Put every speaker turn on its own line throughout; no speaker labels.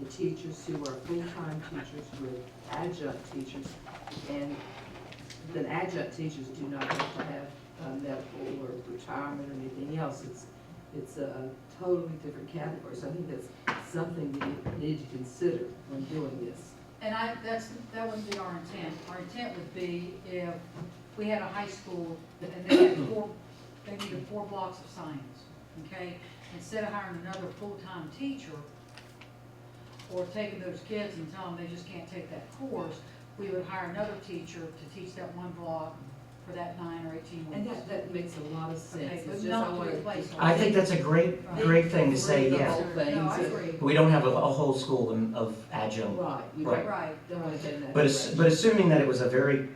the teachers who are full-time teachers with adjunct teachers. And the adjunct teachers do not have to have uh, medical or retirement or anything else. It's, it's a totally different category. So I think that's something that you need to consider when doing this.
And I, that's, that wouldn't be our intent. Our intent would be if we had a high school and they had four, they needed four blocks of science, okay? Instead of hiring another full-time teacher or taking those kids and telling them they just can't take that course, we would hire another teacher to teach that one block for that nine or eighteen
And
weeks.
that, that makes a lot of sense.
Okay,
It's
but
just
not
I
to
wanna-
replace all
I think that's a great, great thing to say,
Right.
yeah.
whole thing
No, I
to-
agree.
But we don't have a, a whole school in- of adjunct.
Right, you
Right.
Right.
don't want to get in that.
But, ass-
direction.
but assuming that it was a very,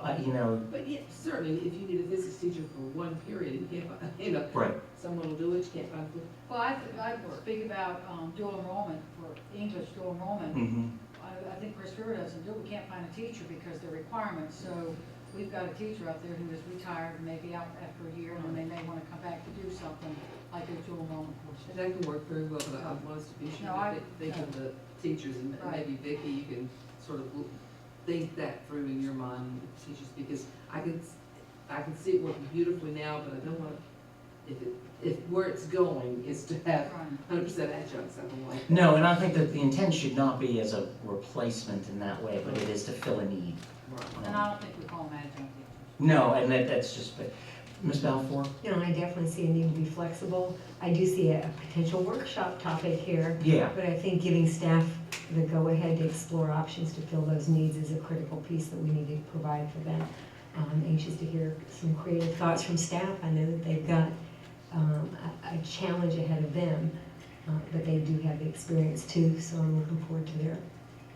uh, you know,
But yeah, certainly, if you need a physics teacher for one period, and you can't, find- you know,
right,
someone will do it, you can't find good.
Well, I, I speak about um, dual enrollment for English dual enrollment.
mhm.
I, I think Chris River doesn't do, it. we can't find a teacher because the requirements, so we've got a teacher out there who is retired, and maybe out after a year, and they may wanna come back to do something, like a dual enrollment course.
And that can work very well, but I wants to be sure
No, I-
that they think of the teachers, and
Right.
maybe Vicki, you can sort of think that through in your mind, with the teachers, because I can, s- I can see it working beautifully now, but I don't want, to if it, if where it's going is to have
Right.
hundred percent adjuncts, I don't like. that.
No, and I think that the intent should not be as a replacement in that way, but it is to fill a need.
Right.
And I don't think we call them adjunct
No, and that, that's just, but, Ms. Balfour?
You know, I definitely see a need to be flexible. I do see a a potential workshop topic here,
Yeah,
but I think giving staff the go-ahead to explore options to fill those needs is a critical piece that we need to provide for them. I'm anxious to hear some creative thoughts from staff. I know that they've got um, a a challenge ahead of them, uh, but they do have the experience too, so I'm looking forward to their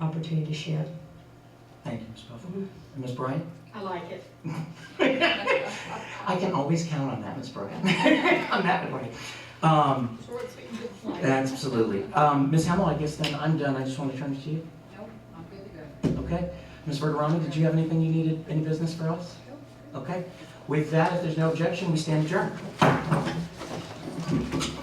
opportunity to share.
thank you, Ms. Balfour. And Ms. Bryant?
I like it.
teachers.
I can always count on that, Ms. Bryant, on that one. Um,
Short, sweet, and to the point.
absolutely. Um, Ms. Hamill, I guess then I'm done, I just want to turn it to you.
Nope, I'm good to go.
Okay. Ms. Bergeroni, did you have anything you needed, any business for us? Okay. With that, if there's no objection, we stand adjourned.